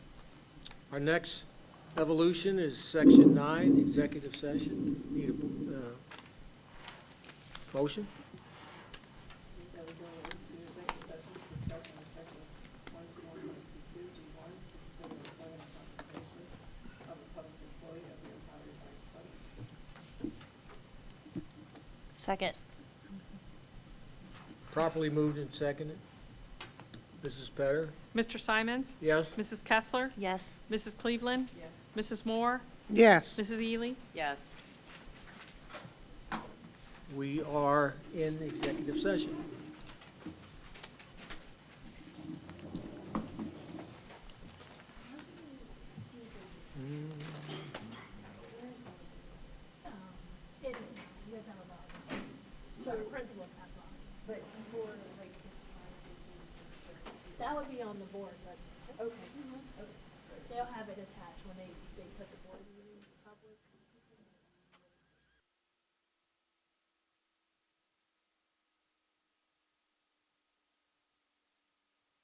Our next evolution is section nine, executive session. Need a, uh, motion? That we go into executive session to discuss under section one twenty-one twenty-two G one to consider the employment and compensation of a public employee of the Ohio Vice President. Second. Properly moved and seconded. Mrs. Petter? Mr. Simons? Yes? Mrs. Kessler? Yes. Mrs. Cleveland? Yes. Mrs. Moore? Yes. Mrs. Ely? Yes. We are in executive session.